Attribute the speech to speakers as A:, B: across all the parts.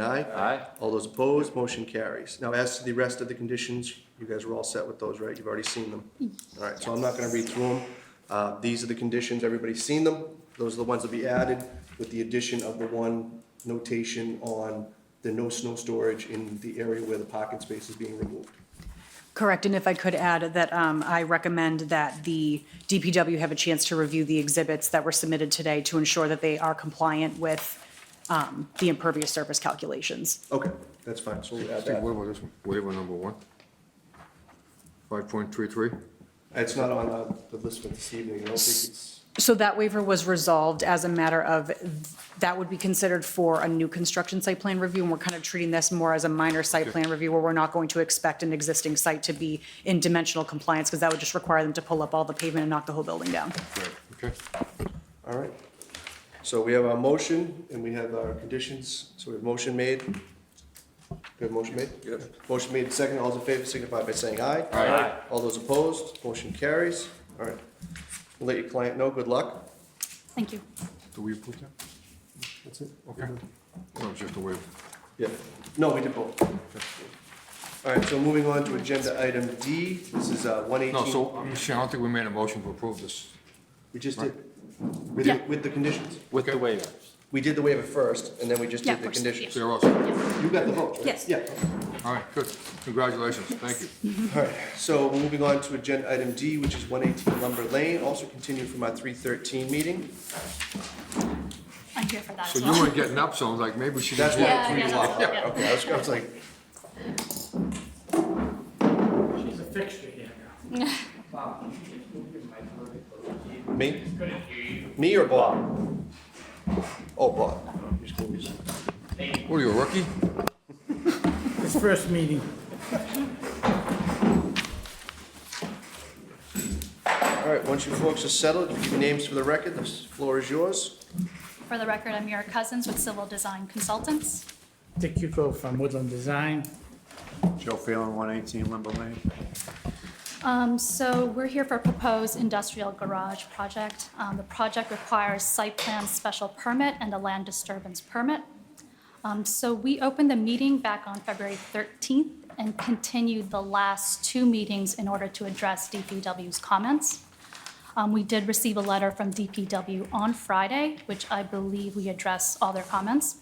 A: Aye?
B: Aye.
A: All those opposed, motion carries. Now, as to the rest of the conditions, you guys are all set with those, right? You've already seen them. All right, so I'm not gonna read through them. Uh, these are the conditions, everybody's seen them. Those are the ones that be added with the addition of the one notation on the no snow storage in the area where the parking space is being removed.
C: Correct, and if I could add that um, I recommend that the DPW have a chance to review the exhibits that were submitted today to ensure that they are compliant with um, the impervious surface calculations.
A: Okay, that's fine, so we'll add
D: Steve, what
A: that.
D: about this one? Waiver number one? Five point three three?
A: It's not on uh, the list for this evening, I don't think it's,
C: So that waiver was resolved as a matter of, that would be considered for a new construction site plan review, and we're kind of treating this more as a minor site plan review, where we're not going to expect an existing site to be in dimensional compliance, because that would just require them to pull up all the pavement and knock the whole building down.
D: Okay,
A: all right. So we have our motion and we have our conditions, so we have motion made. We have motion made? Yes. Motion made, second, all those in favor signify by saying aye.
B: Aye.
A: All those opposed, motion carries, all right. We'll Let your client know, good luck.
C: Thank you.
D: do we approve that?
A: That's it?
D: Okay. No, it's just a waiver.
A: Yeah, no, we did both. All right, so moving on to agenda item D, this is uh, one eighteen.
D: No, so, um, Michelle, I don't think we made a motion to approve this.
A: We just did, with, the-
C: Yeah.
A: with the conditions.
B: With the
D: Okay.
B: waiver.
A: We did the waiver first, and then we just
C: Yeah,
A: did
C: of
A: the
C: course,
A: conditions.
D: So you're all set.
A: You got the vote, right?
C: Yes.
A: Yeah.
D: All right, good. Congratulations, thank you.
A: All right, so moving on to agenda item D, which is one eighteen Lumber Lane, also continued from our three thirteen meeting.
E: I'm here for that
D: So
E: as
D: you
E: well.
D: weren't getting up, so I was like, maybe she
A: That's
D: just.
A: why
E: Yeah,
A: three
E: yeah,
A: is
E: that's-
A: off.
E: yeah.
A: Okay, I was, I was like,
F: She's a fixture here now. Wow.
A: me,
F: Couldn't hear you.
A: me or Bob? Oh, Bob.
D: What are you, a rookie?
F: It's first meeting.
A: All right, once you folks are settled, give your names for the record, the floor is yours.
E: For the record, I'm Mira Cousins with Civil Design Consultants.
F: Dick Cuco from Woodland Design.
G: Joe Phelan, 118 Limber Lane.
E: Um, So we're here for a proposed industrial garage project. Um, The project requires site plan special permit and a land disturbance permit. Um, So we opened the meeting back on February 13th and continued the last two meetings in order to address DPW's comments. Um, We did receive a letter from DPW on Friday, which I believe we addressed all their comments.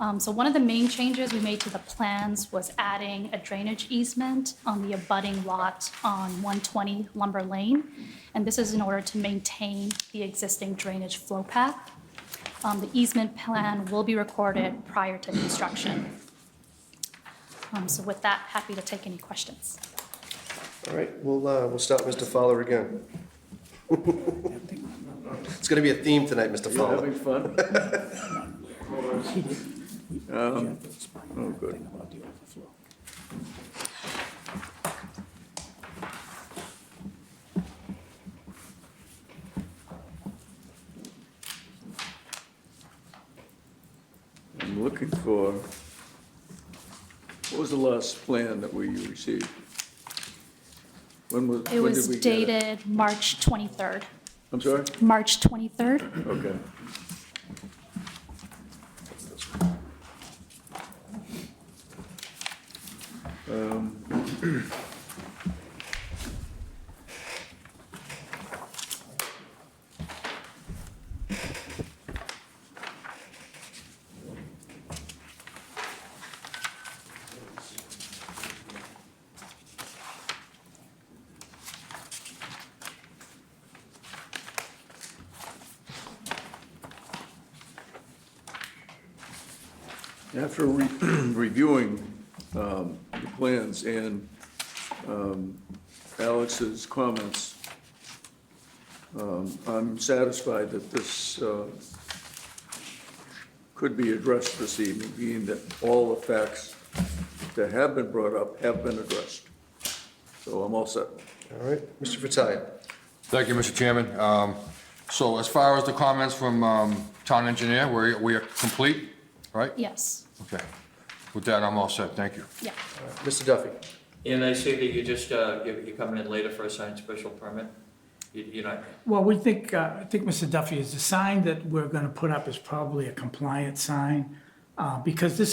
E: Um, So one of the main changes we made to the plans was adding a drainage easement on the abutting lot on 120 Lumber Lane. And this is in order to maintain the existing drainage flow path. Um, The easement plan will be recorded prior to construction. Um, So with that, happy to take any questions.
A: All right, we'll, uh, we'll start Mr. Fowler again. It's gonna be a theme tonight, Mr. Fowler.
G: fun? Um, Oh, good. I'm looking for, what was the last plan that we received? When was, when did
E: It
G: we
E: was
G: get it?
E: dated March 23rd.
G: I'm sorry?
E: March 23rd?
G: Okay. Um, After re- reviewing um, the plans and um, Alex's comments, um, I'm satisfied that this uh, could be addressed this evening, being that all the facts that have been brought up have been addressed. So I'm all set.
A: All right, Mr. Fratelli.
D: Thank you, Mr. Chairman. Um, So as far as the comments from um, town engineer, we we are complete, right?
E: Yes,
D: Okay. With that, I'm all set, thank you.
E: yeah.
A: Mr. Duffy.
H: And I see that you just, uh, you- you're coming in later for a signed special permit? You- You're not,
F: Well, we think, uh, I think Mr. Duffy is, the sign that we're gonna put up is probably a compliant sign, uh, because this